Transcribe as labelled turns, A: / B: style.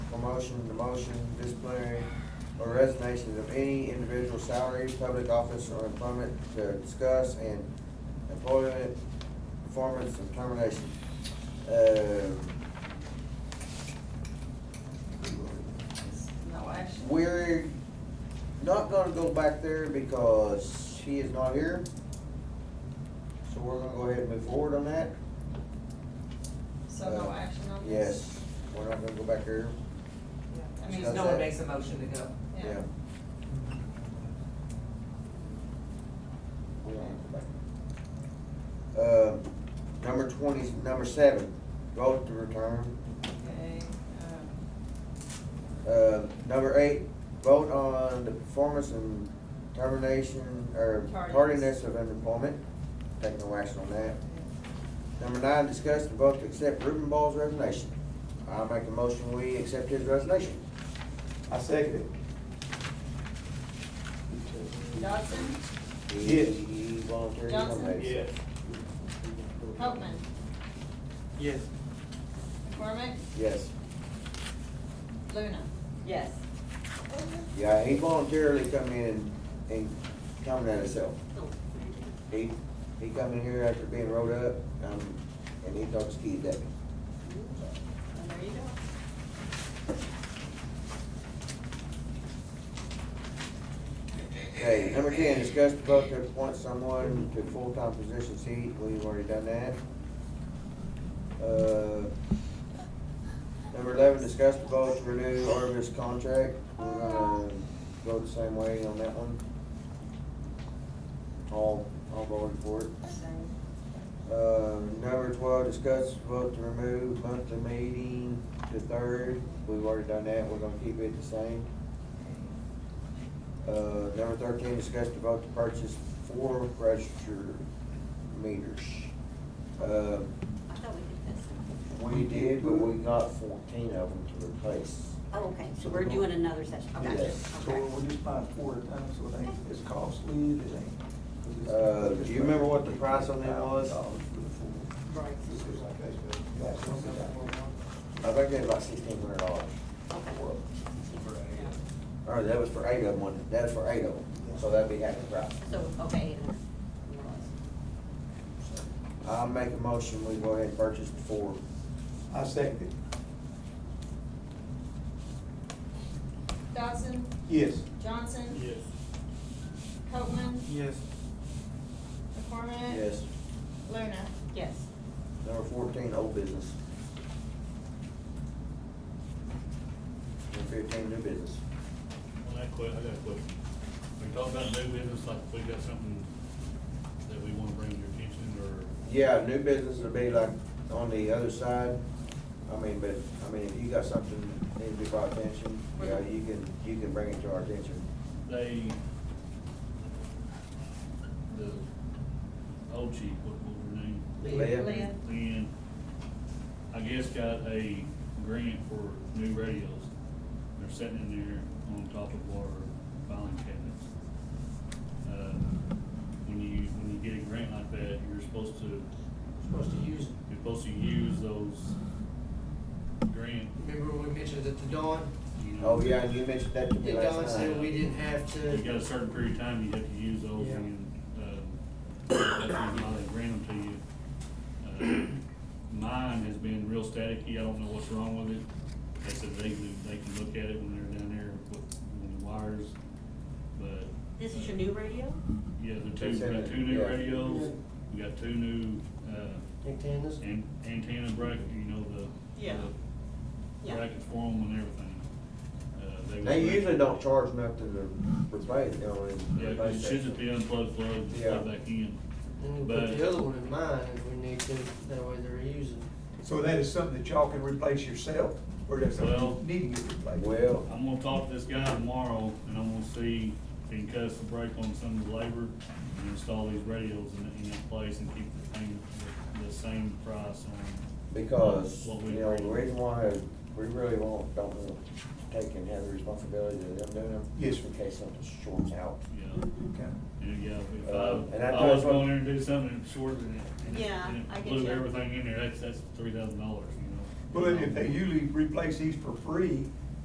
A: motion, demotion, disciplinary, or resignations of any individual salary, public office, or employment to discuss, and employment performance and termination. Uh,
B: No action.
A: We're not gonna go back there because she is not here. So we're gonna go ahead and move forward on that.
B: So no action on this?
A: uh, Yes, we're not gonna go back there.
B: I mean,
C: Means no one makes a motion to go.
B: yeah.
A: We're not gonna go back. Uh, number twenty, number seven, vote to return.
B: Okay, um,
A: Uh, number eight, vote on the performance and termination, or
B: Tardiness.
A: tardiness of unemployment. Take no action on that.
B: um,
A: Number nine, discuss the vote to accept Reuben Ball's resignation. I make a motion, we accept his resignation.
D: I second it.
B: Dodson,
A: He- He voluntarily
B: Johnson?
A: terminated.
D: Yes.
B: Copman,
D: Yes.
B: McCormick,
A: Yes.
B: Luna. Yes.
A: Yeah, he voluntarily come in and terminated himself. He, he come in here after being rolled up, um, and he thought his kid died.
B: And there you go.
A: Okay, number ten, discuss the vote to appoint someone to full-time position seat, we've already done that. Uh, Number eleven, discuss the vote to renew Arvis contract, we're gonna go the same way on that one. All, all voting for it. Uh, number twelve, discuss vote to remove monthly meeting to third. We've already done that, we're gonna keep it the same. Uh, number thirteen, discuss the vote to purchase four register meters. Uh,
E: I thought we did this.
A: we did, but we got fourteen of them to replace.
E: Oh, okay, so we're doing another session, okay,
A: Yes.
F: So
E: okay.
F: we're just buying four at a time, so it ain't, it's costly, it ain't. 'cause
A: Uh,
F: it's-
A: do you remember what the price on that was?
F: $8,000 for the four.
C: Right.
F: Yeah, so it's about-
A: I think they had about sixteen hundred dollars.
E: Okay.
A: Or that was for eight of them, wasn't it? that was for eight of them, so that'd be half the price.
E: So, okay.
A: I'll make a motion, we go ahead and purchase the four.
F: I second it.
B: Dodson,
F: Yes.
B: Johnson.
D: Yes.
B: Copman,
D: Yes.
B: McCormick.
A: Yes.
B: Luna.
E: Yes.
A: Number fourteen, old business. Number fifteen, new business.
G: On that que, I got a question. Are you talking about new business, like we got something that we wanna bring to your attention, or?
A: Yeah, new business would be like on the other side. I mean, but, I mean, if you got something that needs to be brought attention, you know, you can, you can bring it to our attention.
G: They, the old chief, what, what her name?
A: Leah?
C: Leah.
G: Lynn, I guess got a grant for new radios. They're sitting in there on top of our filing cabinets. Uh, When you, when you get a grant like that, you're supposed to.
C: Supposed to use it.
G: You're supposed to use those grant,
H: Remember we mentioned at the dawn,
G: you know.
A: Oh, yeah, and you mentioned that to me
H: that Don
A: last
H: said we
A: night.
H: didn't have
G: You got
H: to,
G: a certain period of time you have to use those
H: Yeah.
G: and, uh, that's the reason why they grant them to you. Uh, Mine has been real staticky, I don't know what's wrong with it. They said they, can- they can look at it when they're down there with, with the wires, but.
E: This is your new radio?
G: Yeah, the
A: They
G: two,
A: said
G: we got
A: that,
G: two new
A: yeah.
G: radios, we got two new, uh,
H: antennas,
G: an- antenna bracket, you know, the.
B: Yeah.
G: the
B: Yeah.
G: Brackets for them and everything. Uh, were-
A: They usually don't charge nothing to replace, you know, and.
G: Yeah, 'cause it should just be unplugged, plugged, and
A: Yeah.
G: plugged back in.
H: and we Mm, put the other one in mine if we need to, that way they're using.
F: So that is something that y'all can replace yourself, or that's
G: Well-
F: something needing to replace?
A: Well,
G: I'm gonna talk to this guy tomorrow, and I'm gonna see if he can cut us a break on some of the labor and install these radios in, in that place and keep the thing, the same price on.
A: Because,
G: What we
A: you know, the
G: agree.
A: reason why we really won't, don't want to take and have the responsibility of them doing them.
F: Yes,
A: In case something shorts out.
G: Yeah,
F: Okay.
G: and yeah, if
A: Uh,
G: I,
A: and I
G: I was
A: thought-
G: going there and do something and short and it, and it-
E: Yeah,
G: and
E: I
G: it
E: get
G: blew
E: you.
G: everything in there, that's, that's three thousand dollars, you know?
F: Well, and if they usually replace these for free,